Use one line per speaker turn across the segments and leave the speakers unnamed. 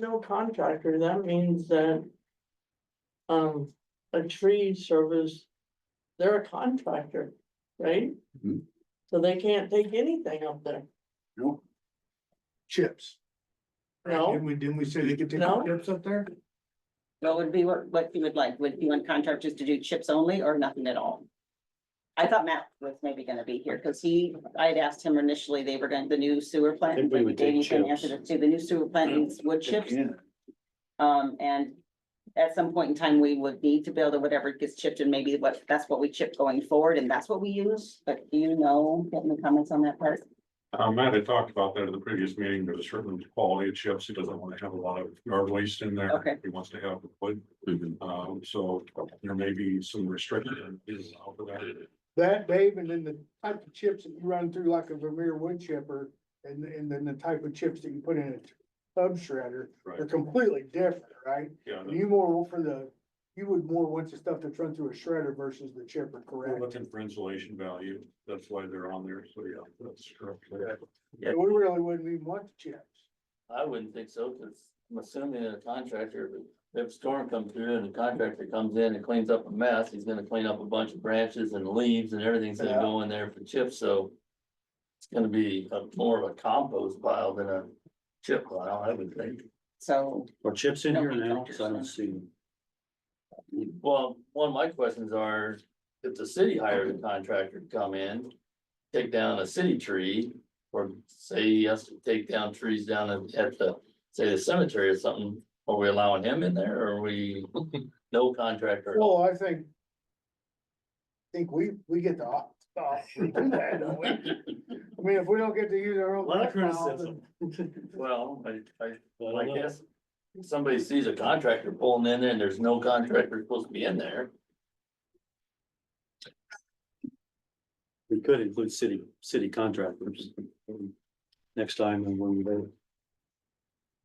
No contractor, that means that. Um, a tree service, they're a contractor, right?
Mhm.
So they can't take anything up there.
No. Chips. Right,
No.
Didn't we, didn't we say they could take
No.
chips up there?
What would be what, what you would like? Would you want contractors to do chips only or nothing at all? I thought Matt was maybe gonna be here because he, I had asked him initially, they were going, to the new sewer plant.
I think we would take
Davey can
chips.
answer this too. the new sewer plant needs wood chips.
Yeah.
Um, and at some point in time, we would need to build or whatever gets chipped and maybe what, that's what we chip going forward and that's what we use. But do you know, get any comments on that part?
Uh, Matt had talked about that in the previous meeting, there's a certain quality of chips, he doesn't want to have a lot of yard waste in there.
Okay.
He wants to have wood,
Mm-hmm.
um, so there may be some restrictions out of that.
That, Dave, and then the type of chips that you run through like a Vermeer wood chipper, and, and then the type of chips that you put in a sub shredder are
Right,
completely different, right?
yeah,
And You more for the, you would more want the stuff that's run through a shredder versus the chipper,
we're
correct?
looking for insulation value, that's why they're on there, so yeah, that's correct.
And We really wouldn't even want the chips.
I wouldn't think so, because I'm assuming a contractor, if a storm comes through and the contractor comes in and cleans up a mess, he's gonna clean up a bunch of branches and leaves and everything's gonna go in there for chips, so. It's gonna be a- more of a compost pile than a chip pile, I would think.
So,
Are chips in
No
here now?
contractors,
Cause I
no.
don't see them.
Well, one of my questions are, if the city hires a contractor to come in, take down a city tree. Or say he has to take down trees down at- at the, say the cemetery or something, are we allowing him in there or are we, no contractor?
Well, I think. I Think we, we get the op, the option to do that, don't Oh, we? I mean, if we don't get to use our own.
Lot of
technology,
criticism. Well, I, I, well, I guess, if somebody sees a contractor pulling in there and there's no contractor supposed to be in there.
We could include city, city contractors. Next time and when we go.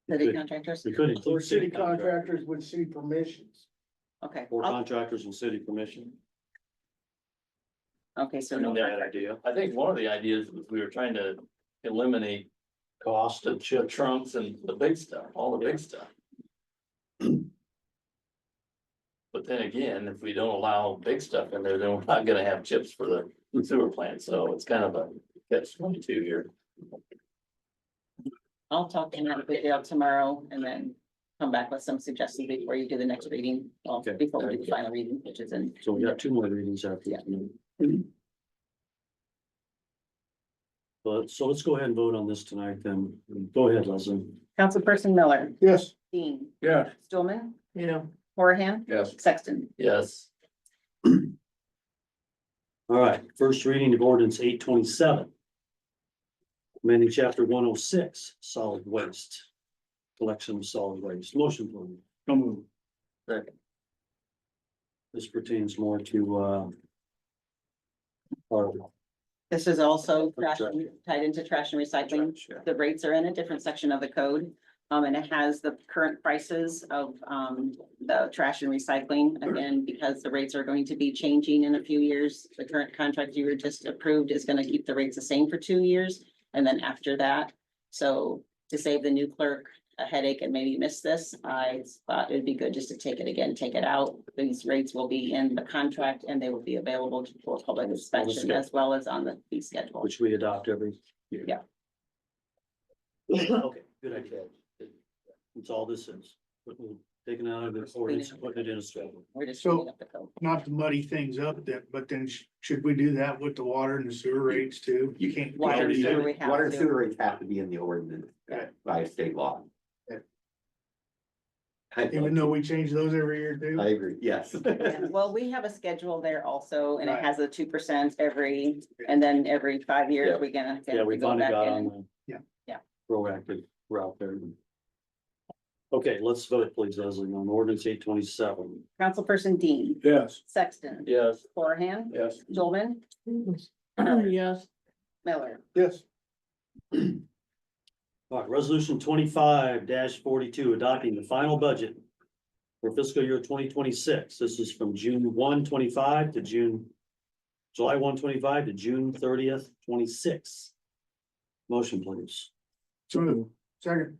We
city
could-
contractors,
we could
Or
include
city
city contractors
contractors would see permissions.
okay.
or
I'll-
contractors with city permission.
Okay, so no contractor,
idea.
I think one of the ideas was we were trying to eliminate
Cost
the
of
chip
chips.
trunks and the big stuff, all the big stuff. But then again, if we don't allow big stuff in there, then we're not gonna have chips for the sewer plant, so it's kind of a catch twenty-two here.
I'll talk to Matt Goodale tomorrow and then come back with some suggestions before you do the next reading. Well,
Okay,
before we do
thank
the
you.
final reading, which is in,
So we got two more readings after.
Yeah.
this meeting. But so let's go ahead and vote on this tonight then. Go ahead, Leslie.
Councilperson Miller,
Yes.
Dean,
Yeah.
Stulman,
You know,
Horahan,
Yes.
Sexton.
Yes,
All right, first reading of ordinance eight twenty-seven. amending chapter one oh six, solid waste. Collection of solid waste, motion please.
Don't move.
This pertains more to, uh. Our
This is also trash and- tied into trash and recycling. The rates are in a different section of the code. Um, and it has the current prices of, um, the trash and recycling. Again, because the rates are going to be changing in a few years. The current contract you were just approved is gonna keep the rates the same for two years. And then after that, so to save the new clerk a headache and maybe miss this, I thought it'd be good just to take it again, take it out. These rates will be in the contract and they will be available for public inspection
schedule.
as well as on the fee schedule.
which we adopt every year.
Yeah.
Okay, good idea. That's all this is. Taking out of the ordinance, putting it in a schedule.
We're just
So-
cleaning up the code.
Not to muddy things up that, but then sh- should we do that with the water and the sewer rates too? You can't.
Water and sewer we have
Water and
to.
sewer rates have to be in the ordinance
Yeah.
by state law.
Yeah.
I,
Even though we change those every year
I
too.
agree, yes.
Yeah, Well, we have a schedule there also, and
Right.
it has a two percent every, and then every five years, we're gonna. have
Yeah,
to
we
go
finally
back
got
in.
on the.
Yeah.
Yeah.
Proactive route there. Okay, let's vote please, Leslie, on ordinance eight twenty-seven.
Councilperson Dean,
Yes.
Sexton,
yes.
Horahan,
Yes.
Dolman,
yes,
Miller.
Yes.
All right, resolution twenty-five forty-two, adopting the final budget for fiscal year twenty twenty-six. This is from June 1, 25 to June, July 1, 25 to June thirtieth, twenty-six. Motion please.
So, second,